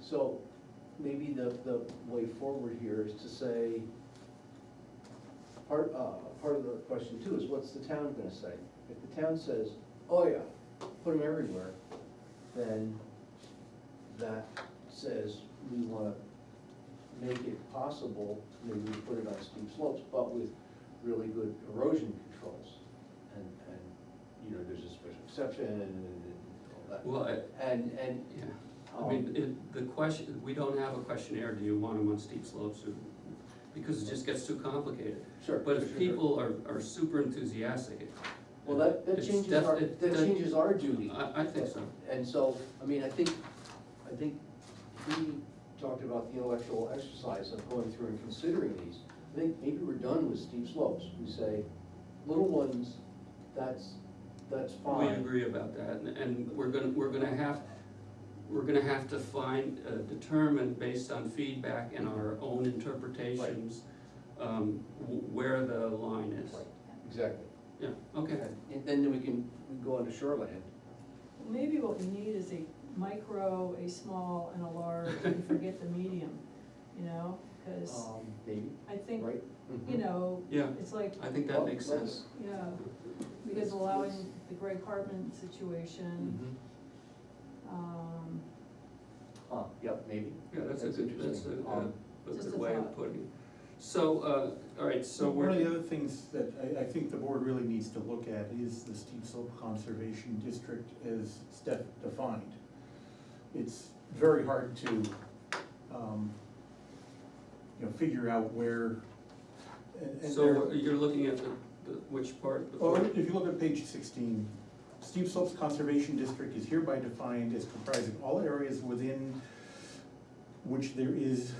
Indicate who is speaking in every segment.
Speaker 1: So maybe the, the way forward here is to say, part, uh, part of the question too is what's the town gonna say? If the town says, oh yeah, put them everywhere, then that says we wanna make it possible, maybe we put it on steep slopes, but with really good erosion controls. And, and, you know, there's a special exception and all that.
Speaker 2: Well, I,
Speaker 1: And, and,
Speaker 2: yeah, I mean, it, the question, we don't have a questionnaire, do you want them on steep slopes or, because it just gets too complicated.
Speaker 1: sure.
Speaker 2: But
Speaker 1: sure,
Speaker 2: if
Speaker 1: sure.
Speaker 2: people are, are super enthusiastic, it-
Speaker 1: Well, that, that
Speaker 2: it's
Speaker 1: changes
Speaker 2: def-
Speaker 1: our,
Speaker 2: it-
Speaker 1: that changes our duty.
Speaker 2: I, I think so.
Speaker 1: And so, I mean, I think, I think he talked about the intellectual exercise of going through and considering these. I think maybe we're done with steep slopes. We say, little ones, that's, that's
Speaker 2: We
Speaker 1: fine.
Speaker 2: agree about that, and, and we're gonna, we're gonna have, we're gonna have to find, uh, determine based on feedback and our own interpretations, um, wh- where the line is.
Speaker 1: Right, Exactly.
Speaker 2: Yeah, okay,
Speaker 1: And then we can we go on to shoreland.
Speaker 3: Maybe what we need is a micro, a small, and a large, and forget the medium, you know? Because
Speaker 1: Um, Maybe,
Speaker 3: I think,
Speaker 1: right? Mm-hmm.
Speaker 4: Mm-hmm.
Speaker 3: you know,
Speaker 2: yeah,
Speaker 3: it's like,
Speaker 2: I think that makes sense.
Speaker 3: yeah, because allowing the Greg Hartman situation,
Speaker 1: mm-hmm.
Speaker 3: um,
Speaker 1: Uh, yep, maybe.
Speaker 2: Yeah, that's a good, that's
Speaker 1: interesting.
Speaker 2: a, uh,
Speaker 1: Um,
Speaker 2: a- a
Speaker 3: Just
Speaker 2: good
Speaker 3: a
Speaker 2: way of
Speaker 3: thought.
Speaker 2: putting it. So, uh, all right, so
Speaker 4: One of
Speaker 2: we're,
Speaker 4: the other things that I, I think the board really needs to look at is the steep slope conservation district as step defined. It's very hard to, um, you know, figure out where, and, and
Speaker 2: so
Speaker 4: there- Oh,
Speaker 2: we're- you're looking at the, the- which part? The
Speaker 4: Or
Speaker 2: fourth?
Speaker 4: if you look at page sixteen, steep slopes conservation district is hereby defined as comprising all areas within which there is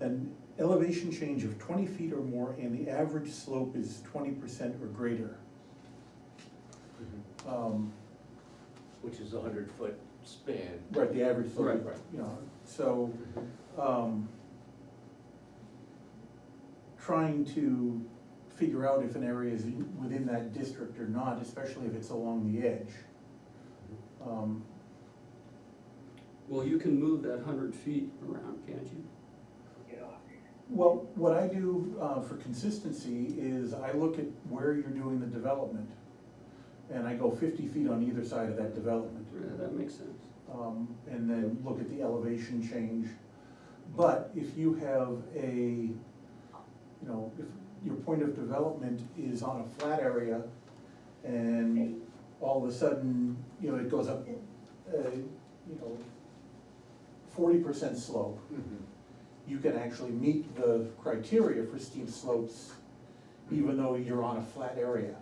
Speaker 4: an elevation change of twenty feet or more and the average slope is twenty percent or greater.
Speaker 1: mhm.
Speaker 4: Um,
Speaker 1: Which is a hundred foot span.
Speaker 4: Right, the average slope,
Speaker 1: Right.
Speaker 4: you know, so, um, trying to figure out if an area is within that district or not, especially if it's along the edge. Um,
Speaker 2: Well, you can move that hundred feet around, can't you?
Speaker 4: Well, what I do uh, for consistency is I look at where you're doing the development, and I go fifty feet on either side of that development,
Speaker 2: Yeah, Uh, that makes sense.
Speaker 4: um, and then look at the elevation change. But if you have a, you know, if your point of development is on a flat area, and all of a sudden, you know, it goes up, uh, you know, forty percent slope,
Speaker 2: Mm-hmm.
Speaker 1: Mhm.
Speaker 4: you can actually meet the criteria for steep slopes even though you're on a flat area.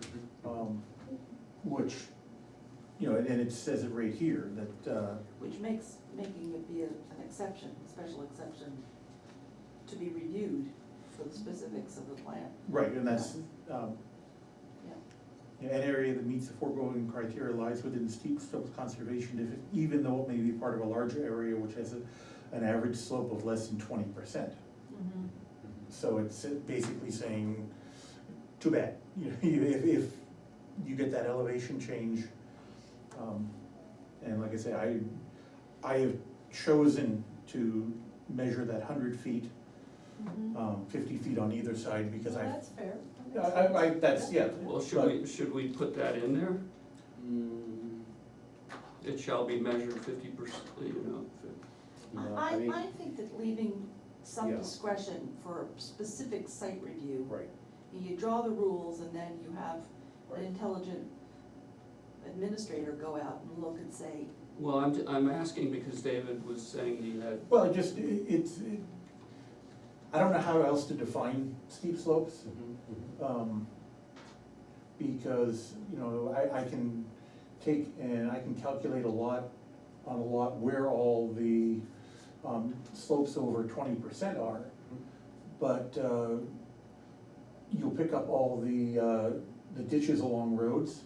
Speaker 1: Mm-hmm.
Speaker 4: Um, Which, you know, and and it says it right here, that, uh,
Speaker 5: Which makes, making it be a- an exception, a special exception, to be reviewed for the specifics of the plan.
Speaker 4: right, and that's, um,
Speaker 5: Yeah.
Speaker 4: an area that meets the foregoing criteria lies within steep slopes conservation, if- even though it may be part of a larger area which has a, an average slope of less than twenty percent.
Speaker 3: mhm,
Speaker 4: So it's basically saying, too bad, you know, you- if, if you get that elevation change. um, And like I say, I, I have chosen to measure that hundred feet,
Speaker 3: mhm.
Speaker 4: um, fifty feet on either side because I,
Speaker 3: That's fair. That
Speaker 4: I,
Speaker 3: makes
Speaker 4: I, I-
Speaker 3: sense.
Speaker 4: that's, yeah.
Speaker 2: Well, should we, should we put that in there?
Speaker 5: Mm-hmm.
Speaker 1: Mm,
Speaker 2: It shall be measured fifty percent, you know. fi-
Speaker 1: no,
Speaker 5: I,
Speaker 1: mean-
Speaker 5: I think that leaving some
Speaker 1: Yeah.
Speaker 5: discretion for a specific site review,
Speaker 1: Right,
Speaker 5: you draw the rules and then you have
Speaker 1: Right.
Speaker 5: an intelligent administrator go out and look and say,
Speaker 2: Well, I'm, j- I'm asking because David was saying he had,
Speaker 4: Well, it just, it- it's, it, I don't know how else to define steep slopes.
Speaker 3: Mm-hmm.
Speaker 1: Mhm, mhm.
Speaker 4: um, Because, you know, I, I can take and I can calculate a lot, on a lot where all the um, slopes over twenty percent are. But uh, you'll pick up all the, uh, the ditches along roads,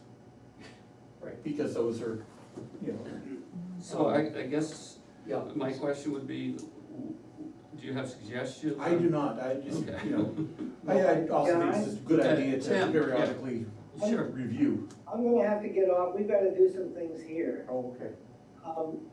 Speaker 1: right,
Speaker 4: because those are, you know,
Speaker 2: so I, I guess
Speaker 1: yeah.
Speaker 2: my question would be, w- w- do you have suggestions?
Speaker 4: I do
Speaker 2: on-
Speaker 4: not, I just,
Speaker 2: Okay.
Speaker 4: you know, I, I also think it's a good
Speaker 2: Yeah,
Speaker 4: idea
Speaker 2: Tim,
Speaker 4: to
Speaker 2: yeah.
Speaker 4: periodically
Speaker 2: Sure.
Speaker 4: review.
Speaker 6: I'm gonna have to get off, we've gotta do some things here.
Speaker 1: Oh, okay.
Speaker 6: Um,